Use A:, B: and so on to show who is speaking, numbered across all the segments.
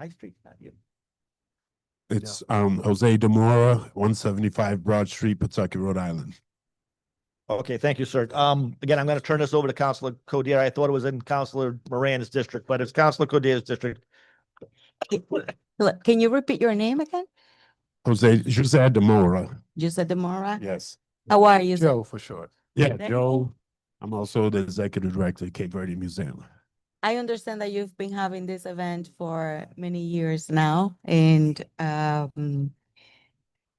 A: High Street's not you.
B: It's um Jose Demora, one seventy-five Broad Street, Pawtucket, Rhode Island.
A: Okay, thank you, sir. Um, again, I'm gonna turn this over to Counselor Codier. I thought it was in Counselor Moran's district, but it's Counselor Codier's district.
C: Look, Can you repeat your name again?
B: Jose Jose Demora.
C: Jose Demora?
B: Yes.
C: How are you? sir?
D: Joe for short.
B: Yeah,
C: Okay.
B: Joe. I'm also the executive director of Cape Verde Museum.
C: I understand that you've been having this event for many years now and um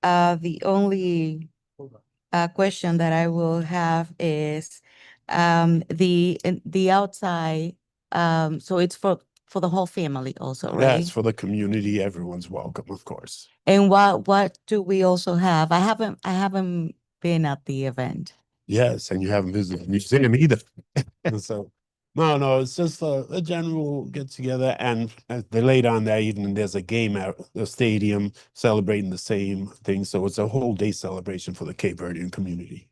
C: uh the only uh question that I will have is um the in- the outside um so it's for for the whole family also, right?
B: That's for the community. Everyone's welcome, of course.
C: And what what do we also have? I haven't I haven't been at the event.
B: Yes, and you haven't visited the museum either. so, no, no, it's just a, a general get together. And uh, the later on that evening, there's a game at the stadium celebrating the same thing. So it's a whole day celebration for the Cape Verdean community.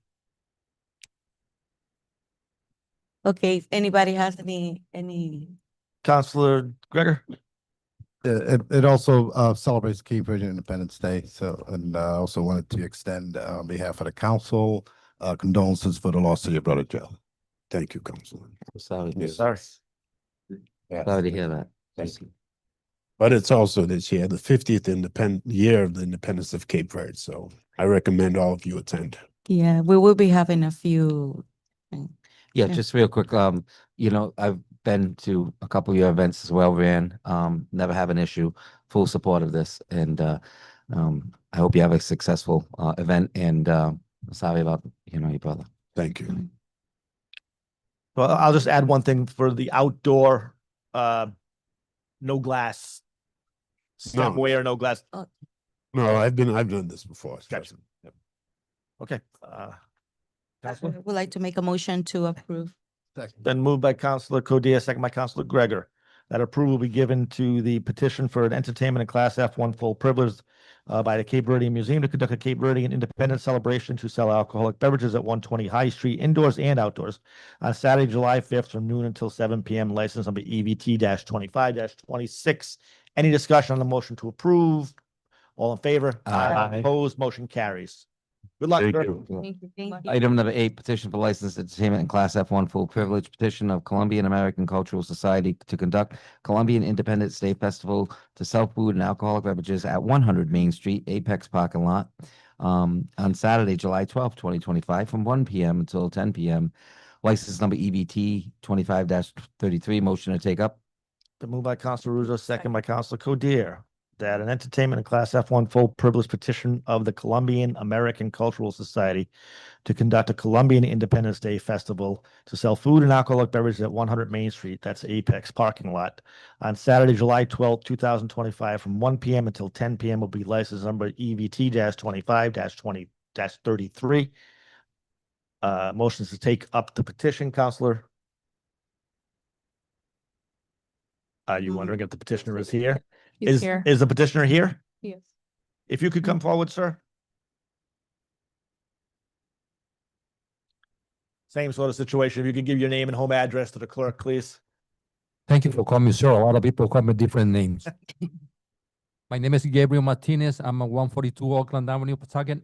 C: Okay, if anybody has any any
A: Counselor Gregor?
E: It, it- it also uh, celebrates Cape Verde Independence Day, so,
B: uh,
E: and I also wanted to extend uh, on behalf of the council uh, condolences for the loss of your brother Joe.
B: Thank you, Councilman.
F: Sorry, to-
B: Yes.
A: Sorry.
F: sorry to hear that.
B: Thank you. But it's also this year, the 50th independent year of the independence of Cape Verde. So I recommend all of you attend.
C: Yeah, we will be having a few.
F: Yeah,
C: Yeah.
F: just real quick, um, you know, I've been to a couple of your events as well, Ran. Um, never have an issue, full support of this. And, uh, um, I hope you have a successful, uh, event and, uh, sorry about, you know, your brother.
B: Thank you.
A: Well, I'll just add one thing for the outdoor, uh, no glass. Stepway or no glass.
B: No, I've been, I've done this before.
A: Gotcha. Yep. Okay, uh,
C: I
A: Counselor?
C: Would like to make a motion to approve.
A: Then moved by Counselor Codea, second by Counselor Gregor. That approval will be given to the petition for an entertainment and Class F one full privilege uh, by the Cape Verdean Museum to conduct a Cape Verdean Independence Celebration to sell alcoholic beverages at one twenty High Street indoors and outdoors on Saturday, July fifth from noon until seven P M. License number E V T twenty-five twenty-six. Any discussion on the motion to approve? All in favor?
F: Aye.
A: Opposed, motion carries. Good luck.
B: Thank
A: sir.
B: you.
F: Item number eight, petition for licensed entertainment and class F one full privilege petition of Colombian American Cultural Society to conduct Colombian Independence Day Festival to sell food and alcoholic beverages at one hundred Main Street Apex parking lot um, on Saturday, July twelfth, twenty twenty-five, from one P M until ten P M. License number E B T twenty-five thirty-three, motion to take up.
A: The move by Counselor Ruzo, second by Counselor Codier, that an entertainment and class F one full privilege petition of the Colombian American Cultural Society to conduct a Colombian Independence Day Festival to sell food and alcoholic beverages at one hundred Main Street, that's Apex parking lot, on Saturday, July twelfth, two thousand twenty-five, from one P M until ten P M will be license number E V T twenty-five twenty thirty-three. Uh, motions to take up the petition, Counselor. Are you
C: Um,
A: wondering if the petitioner is here? Is, is the petitioner here?
C: Yes.
A: If you could come forward, sir. Same sort of situation. If you could give your name and home address to the clerk, please.
G: Thank you for coming, sir. A lot of people call me different names. My name is Gabriel Martinez. I'm at one forty-two Oakland Avenue, Pawtucket,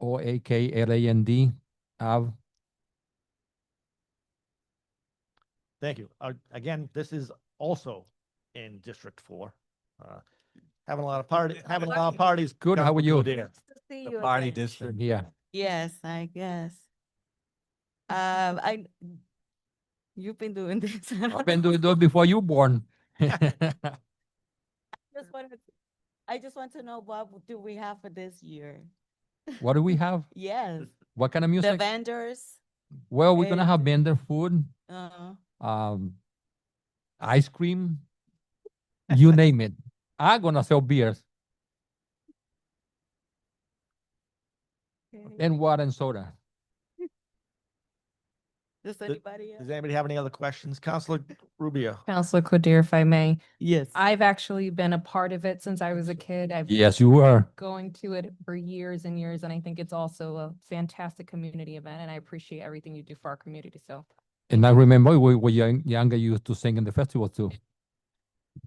G: O A K L A N D Ave.
A: Thank you. Uh, Again, this is also in District Four. Uh, Having a lot of party, having a lot of parties.
G: Good, how are you?
A: There.
C: The
A: district.
G: Yeah,
C: Yes, I guess. Um, I, you've been doing this.
G: I've been doing those before you born.
C: Just wanted- I just want to know what do we have for this year?
G: What do we have?
C: Yes,
G: What kind of
C: the
G: music?
C: vendors,
G: Well, we're gonna have
C: and-
G: vendor food,
C: uh,
G: um, ice cream, you name it. I'm gonna sell beers and water and soda.
C: does anybody?
A: Does anybody have any other questions? Counselor Rubio?
H: Counselor Codier, if I may,
C: Yes.
H: I've actually been a part of it since I was a kid. I've been
G: Yes, you were.
H: going to it for years and years, and I think it's also a fantastic community event, and I appreciate everything you do for our community, so.
G: And I remember we were young, younger, you used to sing in the festival too.